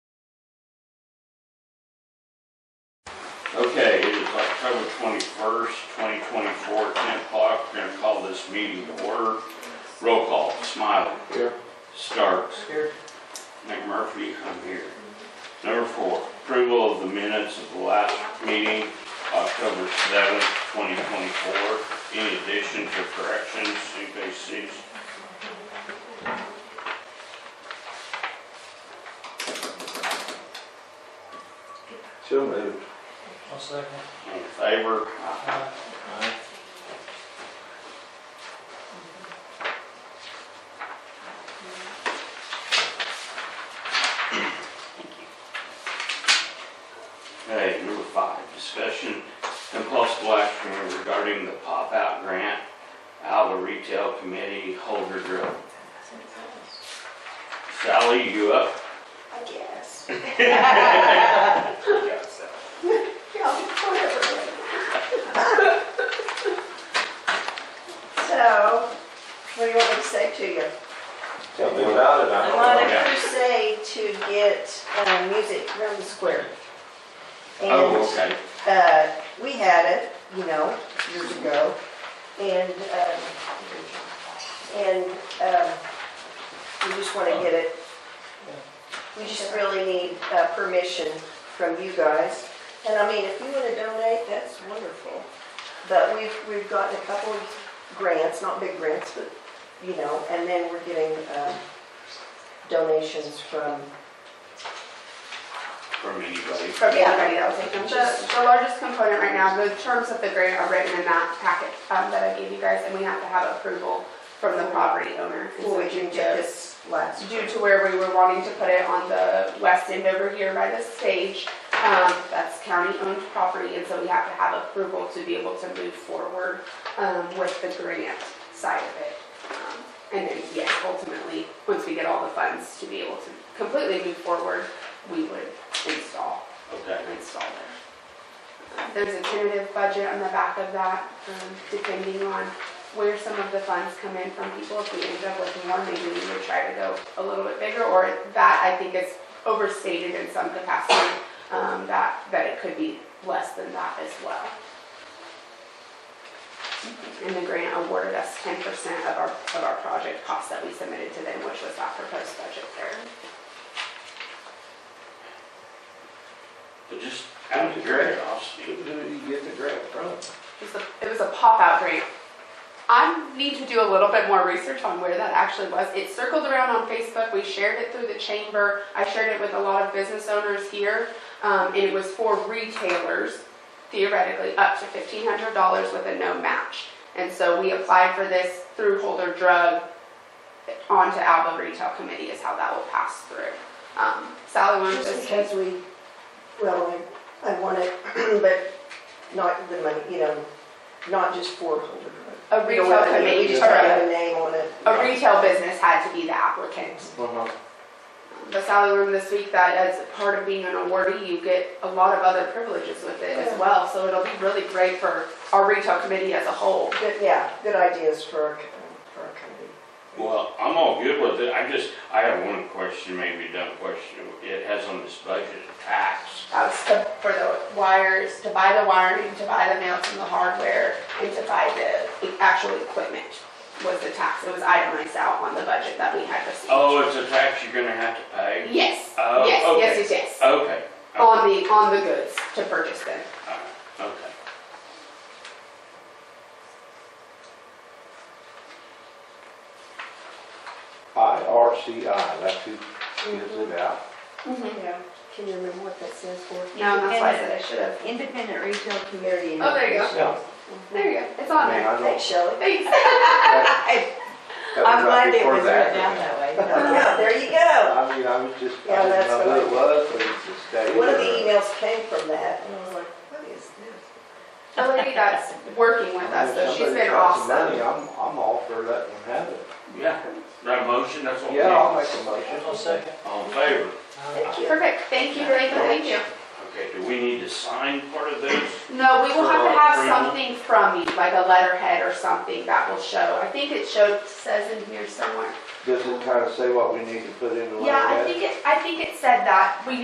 Okay, it is October twenty-first, twenty twenty-four, ten o'clock. We're gonna call this meeting to order. Roll call, Smiley. Here. Starks. Here. McMurphy, I'm here. Number four, approval of the minutes of the last meeting, October seventh, twenty twenty-four. Any additions or corrections, anybody sees? So moved. I'll second. All in favor? Aye. Aye. Okay, number five, discussion and possible action regarding the pop-out grant, Alva Retail Committee, Holder Drill. Sally, you up? I guess. Yeah, Sally. Yeah, whatever. So, what do you want me to say to you? Tell me about it, I I'm don't on know. a crusade to get uh, music around the square. Oh, And okay. uh, we had it, you know, years ago, and, um, and, um, we just wanna get it. We just really need, uh, permission from you guys, and I mean, if you wanna donate, that's wonderful. But we've, we've gotten a couple of grants, not big grants, but, you know, and then we're getting, um, donations from, From anybody. from Yeah. anybody else, I think The, just. the largest component right now, the terms of the grant are written in that packet um, that I gave you guys, and we have to have approval from the property owner. And so Well, we can get this last. Due to where we were wanting to put it on the west end over here by the stage, um, that's county-owned property, and so we have to have approval to be able to move forward um, with the grant side of it. Um, And then, yes, ultimately, once we get all the funds to be able to completely move forward, we would install Okay. install it. There's a tentative budget on the back of that, um, depending on where some of the funds come in from people. If we end up with more, maybe we would try to go a little bit bigger, or that I think is overstated in some capacity, um, that, that it could be less than that as well. And the grant awarded us ten percent of our, of our project costs that we submitted to them, which was that proposed budget there. But just out of curiosity, Who did you get the grant from? It was a- It was a pop-out grant. I need to do a little bit more research on where that actually was. It circled around on Facebook. We shared it through the chamber. I shared it with a lot of business owners here. Um, and it was for retailers, theoretically, up to fifteen hundred dollars with a no match. And so we applied for this through Holder Drug onto Alba Retail Committee is how that will pass through. Um, Sally, wanted Just to because we, well, I, I want it, but not the money, you know, not just for Holder Road. a You know retail what I mean? We committee, just or don't a- have a name on it. a retail business had to be the applicant. Uh-huh. the salary room this week that as part of being an awardee, you get a lot of other privileges with it as well. So it'll be really great for our retail committee as a whole. Good, yeah, good ideas for, our co- for our committee. well, I'm all good with it. I just, I have one question, maybe a dumb question. It has on this budget tax. That's the, for the wires, to buy the wiring, to buy the mounts and the hardware, and to buy the actual equipment was the tax. It was itemized out on the budget that we had received. Oh, it's a tax you're gonna have to pay? Yes, Oh, yes, okay. yes, yes, yes. Okay, On the, on the goods to purchase them. all right, okay. IRCI, that's who gives it out. Yeah, can you remember what that stands for? No, that's why I said I should have. Independent Retail Community. Oh, there you go. Yeah. There you go. It's I on mean, there. I Thanks, don't. Shelley. Thanks. that- that was I'm right glad it before was the written out accident. that way. Yeah, there you go. I mean, I was just, I Yeah, didn't that's know who what I- it was, but it's the state. One of the or- emails came from that, and I was like, what is this? a lady that's working with us, If so she's somebody been got some awesome. Money, I'm, I'm all for letting them have it. Yeah, that motion, that's what we Yeah, I'll need. make a I'll motion. second. All in favor? Thank you. Perfect, thank you, thank you, thank you. Okay, do we need to sign part of this? No, we will have to For have approval. something from you, like a letterhead or something that will show. I think it showed, says in here somewhere. Does it kind of say what we need to put in the letterhead? Yeah, I think it, I think it said that. We